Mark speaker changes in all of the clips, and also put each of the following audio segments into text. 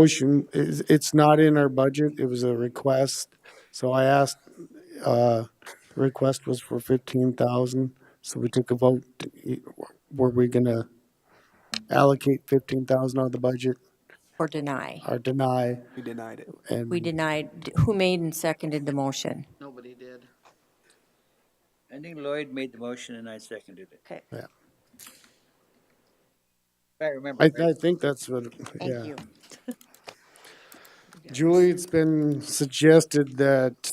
Speaker 1: motion, is, it's not in our budget, it was a request. So I asked, uh, the request was for fifteen thousand, so we took a vote. Were we gonna allocate fifteen thousand out of the budget
Speaker 2: or deny?
Speaker 1: or deny?
Speaker 3: We denied it.
Speaker 1: And
Speaker 2: We denied, who made and seconded the motion?
Speaker 4: Nobody did. I think Lloyd made the motion and I seconded it.
Speaker 2: Okay,
Speaker 4: If I remember.
Speaker 1: I,
Speaker 4: right.
Speaker 1: I think that's what, yeah.
Speaker 2: thank you.
Speaker 1: Julie, it's been suggested that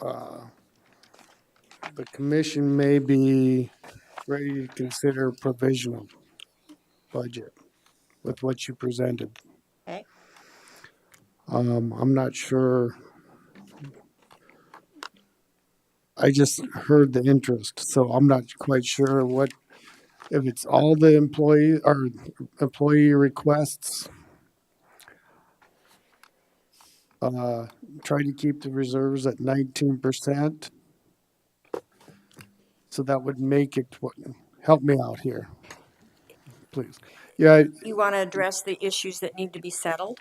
Speaker 1: uh, the commission may be ready to consider provisional budget with what you presented.
Speaker 2: Okay.
Speaker 1: Um, I'm not sure. I just heard the interest, so I'm not quite sure what, if it's all the employee or employee requests. Uh, try to keep the reserves at nineteen percent. So that would make it, what- help me out here, please. Yeah,
Speaker 2: You want to address the issues that need to be settled?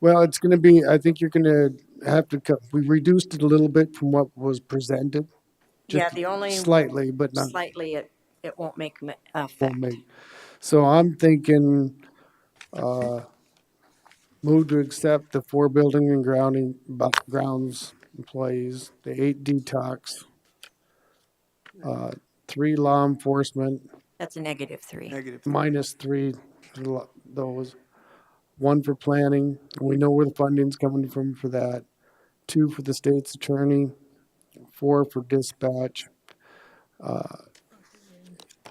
Speaker 1: well, it's gonna be, I think you're gonna have to cut, we reduced it a little bit from what was presented.
Speaker 2: Yeah,
Speaker 1: just
Speaker 2: the only
Speaker 1: Slightly, but not.
Speaker 2: slightly, it, it won't make m-
Speaker 1: will
Speaker 2: effect.
Speaker 1: make. So I'm thinking, uh, move to accept the four building and grounding, bu- grounds employees, the eight detox, uh, three law enforcement,
Speaker 2: That's a negative three.
Speaker 3: Negative.
Speaker 1: minus three, for lo- those. One for planning, and we know where the funding's coming from for that. Two for the state's attorney, four for dispatch. Uh,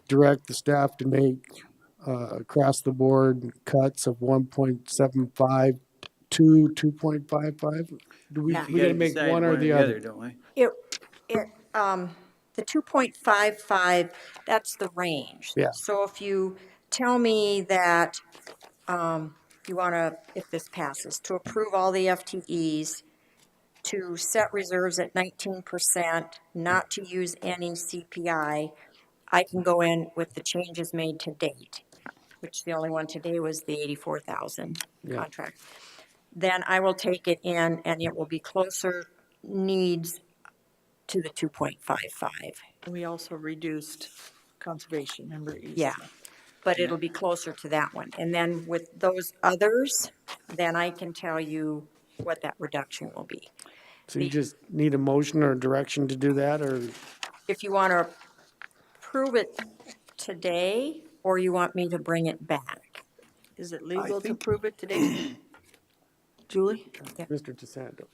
Speaker 1: Direct the staff to make, uh, across the board cuts of one point seven five to two point five five. Do we,
Speaker 2: Yeah.
Speaker 1: we gotta make
Speaker 4: decide
Speaker 1: one or the other?
Speaker 4: Don't we?
Speaker 2: It, it, um, the two point five five, that's the range.
Speaker 1: Yeah.
Speaker 2: So if you tell me that, um, you want to, if this passes, to approve all the FTEs, to set reserves at nineteen percent, not to use any CPI, I can go in with the changes made to date, which the only one today was the eighty-four thousand contract. Then I will take it in and it will be closer needs to the 2.55.
Speaker 5: We also reduced conservation, remember? East?
Speaker 2: Yeah. But it'll be closer to that one. And then with those others, then I can tell you what that reduction will be.
Speaker 1: So you just need a motion or direction to do that, or?
Speaker 2: If you want to prove it today, or you want me to bring it back.
Speaker 5: Is it legal to
Speaker 3: think-
Speaker 5: prove it today? Julie?
Speaker 1: Mr. DeSanto.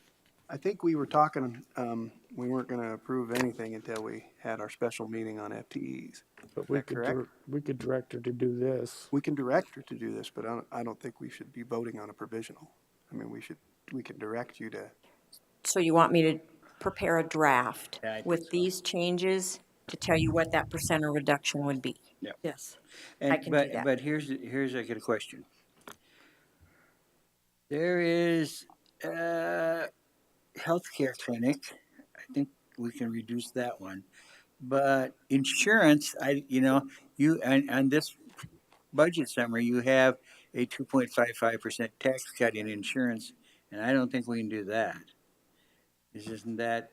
Speaker 3: I think we were talking, um, we weren't gonna approve anything until we had our special meeting on FTEs.
Speaker 1: But we
Speaker 3: that
Speaker 1: could,
Speaker 3: correct?
Speaker 1: dir- we could direct her to do this.
Speaker 3: We can direct her to do this, but I don't, I don't think we should be voting on a provisional. I mean, we should, we can direct you to,
Speaker 2: So you want me to prepare a draft
Speaker 4: Yeah, I think
Speaker 2: with these changes to tell you what that percent of reduction would be?
Speaker 5: Yes.
Speaker 4: And-
Speaker 2: can do
Speaker 4: but-
Speaker 2: that.
Speaker 4: But here's, here's I got a question. There is a healthcare clinic. I think we can reduce that one. But insurance, I, you know, you, and, and this budget summary, you have a two point five five percent tax cut in insurance, and I don't think we can do that. This isn't that,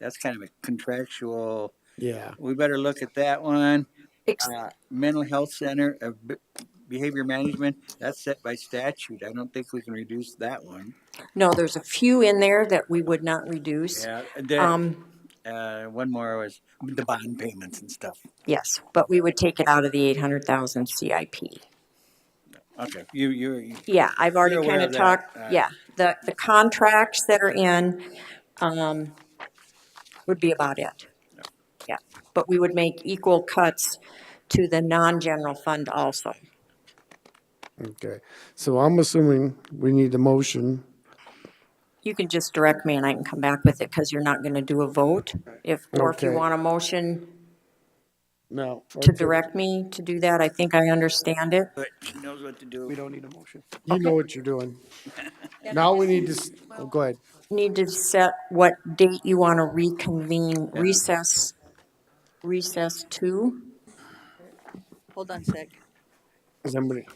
Speaker 4: that's kind of a contractual,
Speaker 1: Yeah.
Speaker 4: we better look at that one
Speaker 2: Ex-
Speaker 4: uh, mental health center of b- behavior management, that's set by statute. I don't think we can reduce that one.
Speaker 2: No, there's a few in there that we would not reduce.
Speaker 4: Yeah, there,
Speaker 2: Um,
Speaker 4: uh, one more was the bond payments and stuff.
Speaker 2: Yes, but we would take it out of the eight hundred thousand CIP.
Speaker 4: Okay, you, you,
Speaker 2: Yeah, I've already
Speaker 4: You're aware
Speaker 2: kind of
Speaker 4: of that,
Speaker 2: talked,
Speaker 4: uh,
Speaker 2: yeah, the, the contracts that are in, um, would be about it. Yeah, but we would make equal cuts to the non-general fund also.
Speaker 1: Okay. So I'm assuming we need a motion.
Speaker 2: You can just direct me and I can come back with it, because you're not gonna do a vote. If, or if you
Speaker 1: Okay.
Speaker 2: want a motion
Speaker 1: No.
Speaker 2: to direct me to do that, I think I understand it.
Speaker 4: but she knows what to
Speaker 3: we
Speaker 4: do.
Speaker 3: don't need a motion.
Speaker 1: You know what you're doing. Now we need to, s- oh, go ahead.
Speaker 2: need to set what date you want to reconvene recess, recess to.
Speaker 5: Hold on a sec.
Speaker 1: Is anybody?